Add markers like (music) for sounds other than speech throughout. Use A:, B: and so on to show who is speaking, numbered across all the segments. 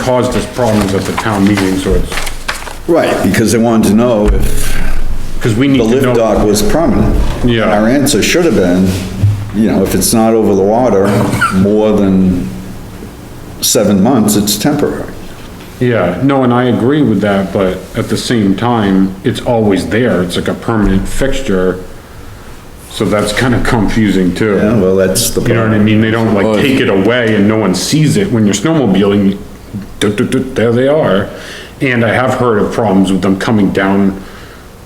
A: caused us problems at the town meeting, so it's,
B: Right, because they wanted to know if
A: because we need
B: the
A: to
B: lift
A: know.
B: dock was permanent.
A: Yeah.
B: Our answer should have been, you know, if it's not over the water more than seven months, it's temporary.
A: Yeah, no, and I agree with that, but at the same time, it's always there. It's like a permanent fixture. So that's kind of (laughs) confusing too.
B: Yeah, well, that's the.
A: You know what I mean? They don't
C: Well,
A: like
C: it's-
A: take it away and no one sees it when you're snowmobiling. duh, duh, duh, There they are. And I have heard of problems with them coming down,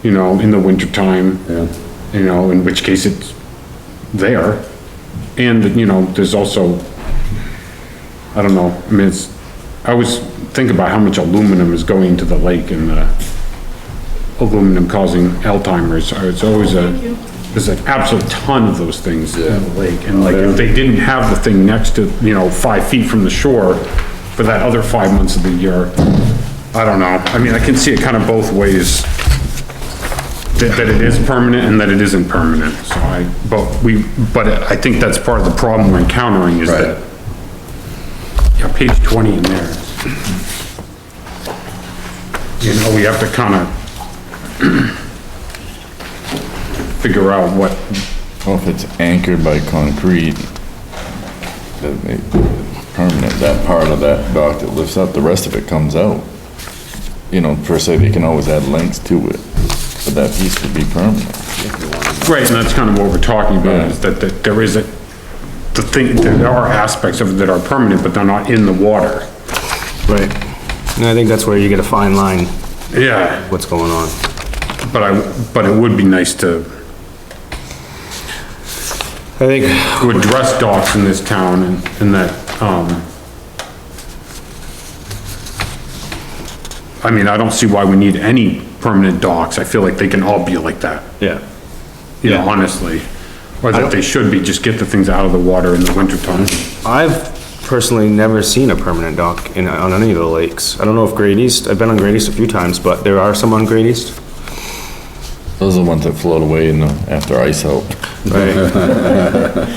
A: you know, in the wintertime. You know, in which case it's there. And, you know, there's also, I don't know, I mean, it's, I always think about how much aluminum is going into the lake and the aluminum causing Alzheimer's. Uh, It's always a, there's an absolute ton of those things in the lake. And like, if they didn't have the thing next to, you know, five feet from the shore for that other five months of the year, I don't know. I mean, I can see it kind of both ways. That, that it is permanent and that it isn't permanent, so I, but we, but I think that's part of the problem we're encountering is that. Yeah, page twenty in there. You know, we have to kind of figure out what,
C: Well, if it's anchored by concrete, that may- permanent, that part of that dock that lifts up, the rest of it comes out. You know, per se, they can always add length to it, but that piece would be permanent.
A: right, and that's kind of what we're talking about, is that, that there is a, the thing, there are aspects of it that are permanent, but they're not in the water.
D: Right. And I think that's where you get a fine line,
A: Yeah,
D: what's going on.
A: but I, but it would be nice to,
D: I think,
A: to address docks in this town and, and that, um, I mean, I don't see why we need any permanent docks. I feel like they can all be like that,
D: yeah,
A: you know, honestly. Or that they should be, just get the things out of the water in the wintertime.
D: I've personally never seen a permanent dock in, on any of the lakes. I don't know if Great East, I've been on Great East a few times, but there are some on Great East.
C: Those are the ones that float away in the, after ice out.
D: Right.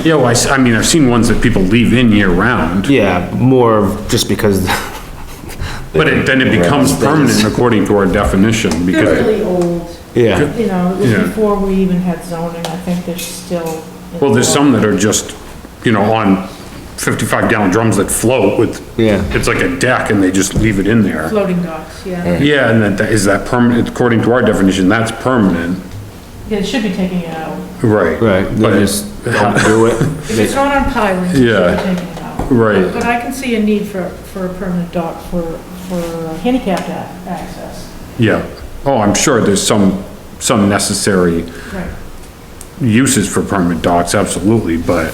A: Yeah, well, I, s- I mean, I've seen ones that people leave in year round,
D: (laughs) Yeah, more of just because, (laughs)
A: but it, then it becomes permanent according to our definition because,
E: fairly old,
D: yeah,
E: you know, it
A: Yeah.
E: was before we even had zoning, I think there's still.
A: well, there's some that are just, you know, on fifty-five gallon drums that float with,
D: Yeah.
A: it's like a deck and they just leave it in there.
E: Floating docks, yeah.
A: Yeah, and that- that, is that permanent, according to our definition, that's permanent.
E: Yeah, it should be taking it out.
A: Right.
D: right,
A: But
D: they
A: it's,
D: just don't do
A: (laughs)
E: If it's
D: it.
E: not on pilings, it should
A: Yeah.
E: be taking it out.
A: Right.
E: But I can see a need for, for a permanent dock for, for handicapped a- access.
A: yeah, oh, I'm sure there's some, some necessary
E: Right.
A: uses for permanent docks, absolutely, but,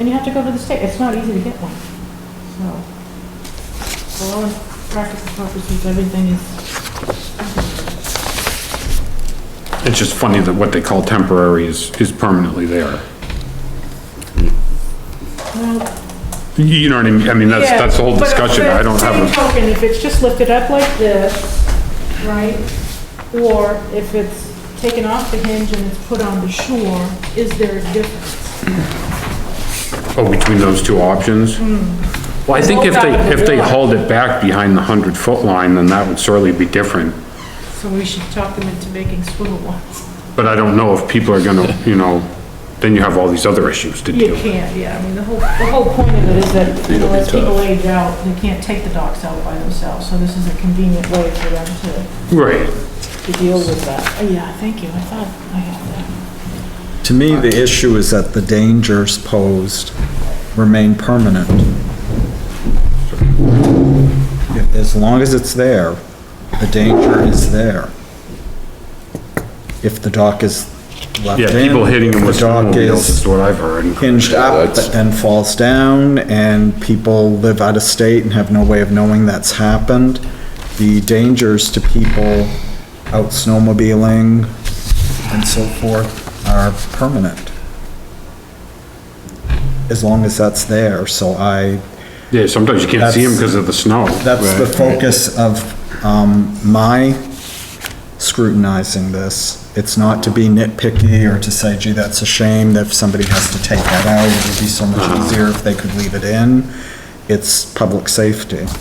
E: And you have to go to the state, it's not easy to get one, so. For all practical purposes, everything is,
A: it's just funny that what they call temporary is, is permanently there.
E: well,
A: You- You know what I mean, I mean, that's, that's the whole
E: Yeah, but-
A: discussion,
E: but
A: I don't
E: Same
A: have a,
E: token, if it's just lifted up like this, right, or if it's taken off the hinge and it's put on the shore, is there a difference?
A: oh, between those two options?
E: Hmm.
A: Well, I think if they, if they hauled it back behind the hundred foot line, then that would certainly be different.
E: So we should talk them into making swivel ones.
A: But I don't know if people are gonna, you know, then you have all these other issues to
E: You
A: deal with.
E: can't, yeah, I mean, the whole, the whole point of it is that, you know, as people age out, they can't take the docks out by themselves, so this is a convenient way for them to,
A: Right.
E: to deal with that. Oh, Yeah, thank you, I thought I had that.
F: To me, the issue is that the dangers posed remain permanent. As long as it's there, the danger is there. If the dock is left in.
A: Yeah, people hitting them
F: if
A: with
F: the dock
A: snowmobiles
F: is
A: is what I've heard.
F: Hinged up, but then falls down, and people live out of state and have no way of knowing that's happened. The dangers to people out snowmobiling and so forth are permanent. As long as that's there, so I,
A: Yeah, sometimes you can't see them because of the snow.
F: that's the focus of, um, my scrutinizing this. It's not to be nitpicky or to say, gee, that's a shame that if somebody has to take that out, it would be so much easier if they could leave it in. it's public safety.